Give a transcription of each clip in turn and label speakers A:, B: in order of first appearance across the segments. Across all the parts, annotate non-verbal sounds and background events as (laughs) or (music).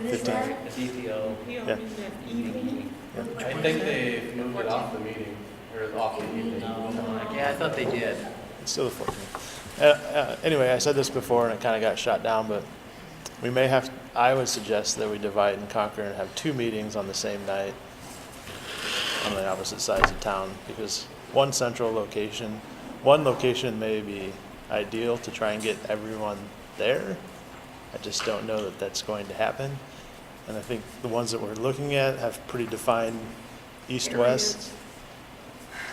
A: It is
B: Fifteen.
A: where?
C: It's EPO.
B: Yeah.
D: I think they've moved it off the meeting, or off the evening.
E: Oh,
C: Yeah, I thought they did.
B: It's still the 14th. Uh, uh, Anyway, I said this before and it kind of got shot down, but we may have, I would suggest that we divide and conquer and have two meetings on the same night on the opposite sides of town, because one central location, one location may be ideal to try and get everyone there. I just don't know that that's going to happen. And I think the ones that we're looking at have pretty defined east-west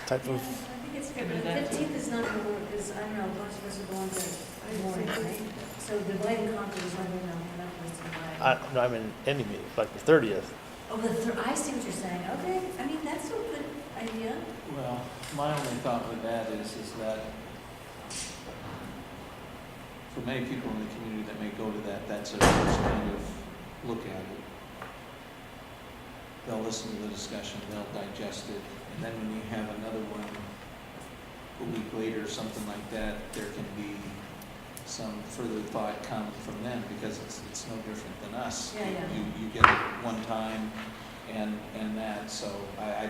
B: type
A: Yeah, I
B: of
A: think it's fair, but the fifteenth is not gonna work, because I don't know, most of us are going to morning, right? So the blame conference is running on, and that was
B: I, no, I mean, any meeting, like the thirtieth.
A: Oh, but thir- I see what you're saying, okay, I mean, that's a good idea.
F: Well, my only thought with that is, is that for many people in the community that may go to that, that's their first kind of look at it. They'll listen to the discussion, they'll digest it, and then when you have another one a week later, or something like that, there can be some further thought coming from them, because it's, it's no different than us.
A: Yeah, yeah.
F: You, you get it one time, and, and that, so I, I,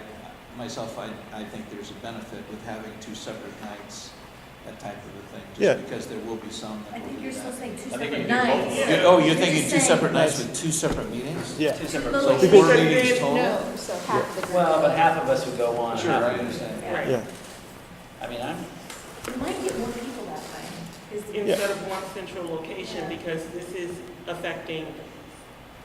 F: myself, I, I think there's a benefit with having two separate nights, that type of a thing.
B: Yeah.
F: Just because there will be some
A: I
F: that will
A: think
F: do
A: you're still
F: that.
A: saying two
C: I think you
A: separate
C: do both.
A: nights.
C: Yeah.
F: You- Oh, you're
A: You're
F: thinking two
A: saying-
F: separate nights with two separate meetings?
B: Yeah,
C: Two separate.
A: Well,
F: So
A: Because
F: four
G: they
F: meetings
G: didn't
F: total?
G: know, so half of the.
C: Well, but half of us would go on.
F: Sure,
C: half
F: I
C: would-
F: understand.
G: Right.
B: yeah,
C: I mean, I'm,
A: You might get more people that way. is the-
G: Instead of one central location, because this is affecting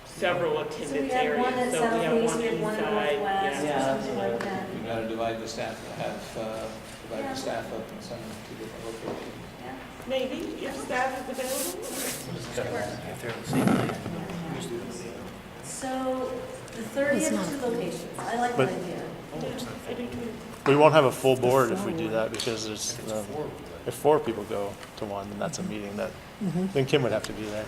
G: several
A: So we
G: attendance
A: have one at
G: areas. So we have
A: Southeast,
G: one
A: we have one at
G: inside.
A: Northwest, or
G: yeah.
C: Yeah.
A: something like that.
F: You gotta divide the staff, have, uh, divide the staff up and send them to different locations.
A: Yeah.
G: Maybe, if staff is available.
A: So the thirtieth, two locations, I like
B: But-
A: that idea.
G: I do too.
B: we won't have a full board if we do that, because there's, um, if four people go to one, then that's a meeting that, then Kim would have to be there.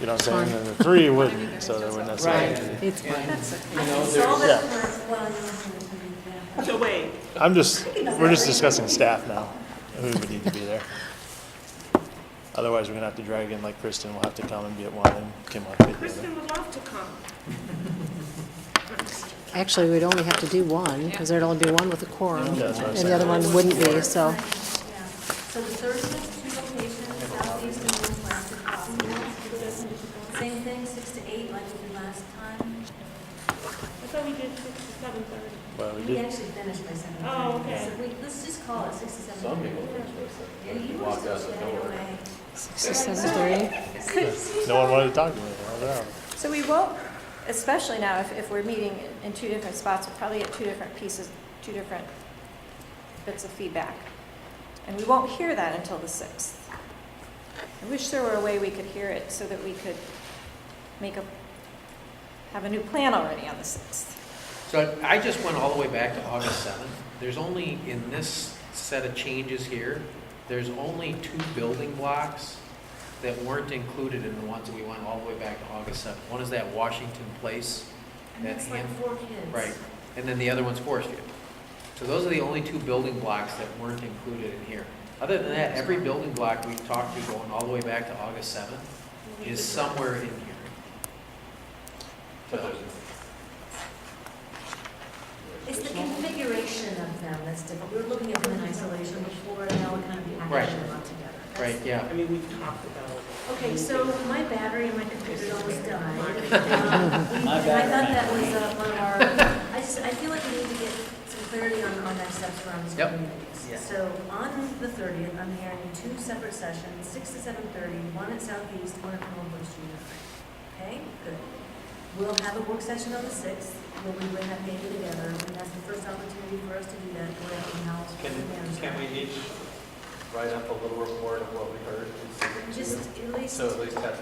B: You know what I'm saying, and the three wouldn't, so they wouldn't necessarily. be.
F: It's fine.
A: I can solve it for, well, I don't know how to do that.
G: So wait,
B: I'm just, we're just discussing staff now, who would need to be there. Otherwise, we're gonna have to drag in, like Kristen will have to come and be at one, and Kim will have to be at the other.
G: Kristen would love to come.
H: Actually, we'd only have to do one, because there'd only be one with a quorum, and
B: Yeah, that's what I'm
H: the
B: saying.
H: other one wouldn't be, so.
A: Yeah. So the thirtieth, two locations, southeast and northwest, and Cotton Mills. Same thing, six to eight, like we did last time.
G: I thought we did six to seven thirty.
B: Well, we
A: We
B: did,
A: actually finished by seven.
G: Oh,
A: thirty.
G: okay.
A: So we, let's just call it six to seven.
D: Some people think
A: Yeah,
D: it's
A: you
D: like,
A: were
D: walk
A: still
D: out the
A: staying
D: door.
A: away.
H: Six, seven, three.
B: no one wanted to talk to me, I was out.
I: So we won't, especially now, if, if we're meeting in two different spots, we'll probably get two different pieces, two different bits of feedback. And we won't hear that until the 6th. I wish there were a way we could hear it so that we could make a, have a new plan already on the 6th.
E: So I I just went all the way back to August 7th. There's only, in this set of changes here, there's only two building blocks that weren't included in the ones that we went all the way back to August 7th. One is that Washington Place,
A: And that's like
E: That's
A: four kids.
E: right, and then the other one's Forest View. So those are the only two building blocks that weren't included in here. Other than that, every building block we've talked to going all the way back to August 7th is somewhere in here. So-
A: It's the configuration of them that's different. We were looking at them in isolation before, and now we're kind of packaging them all together.
E: Right,
A: That's-
E: yeah.
G: I mean, we talked about.
A: Okay, so my battery in my computer almost died. Um,
C: My
A: (laughs) I thought
C: battery
A: that
C: might
A: was uh, one of our, I just, I feel like we need to get some clarity on, on next steps around these
E: Yep.
C: Yeah.
A: communities. So on the thirtieth, I'm hearing two separate sessions, six to seven thirty, one at Southeast, one at Norwood Street. Okay, good. We'll have a work session on the sixth, where we bring that data together, and that's the first opportunity for us to do that, go out and help.
D: Can, can we each write up a little report of what we heard? and send it to
A: Just
D: you?
A: at least.
D: So at least have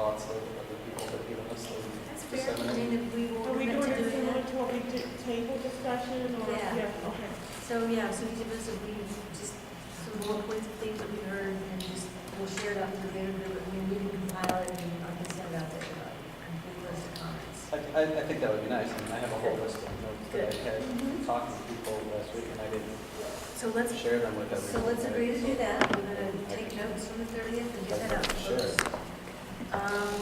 D: thoughts of other people that have given us those.
A: That's fair, I mean, if we will
G: Are we
A: commit to
G: doing it
A: doing
G: similar
A: that.
G: to what we did, table discussion or?
A: Yeah.
G: Okay.
A: So, yeah, so give us a, we just, some bullet points of things that we heard, and just, we'll share it out with the bigger group, I mean, we can compile it, and I can send out the, uh, complete list of comments.
D: I, I, I think that would be nice, I mean, I have a whole list of notes that I
A: Mm-hmm.
D: had talked to people last week and I didn't
A: So let's,
D: share them with
A: so
D: everyone.
A: let's
D: right?
A: agree to
D: So-
A: do that, we're gonna take notes from the thirtieth and get that out. to folks.
D: Sure.
A: Um,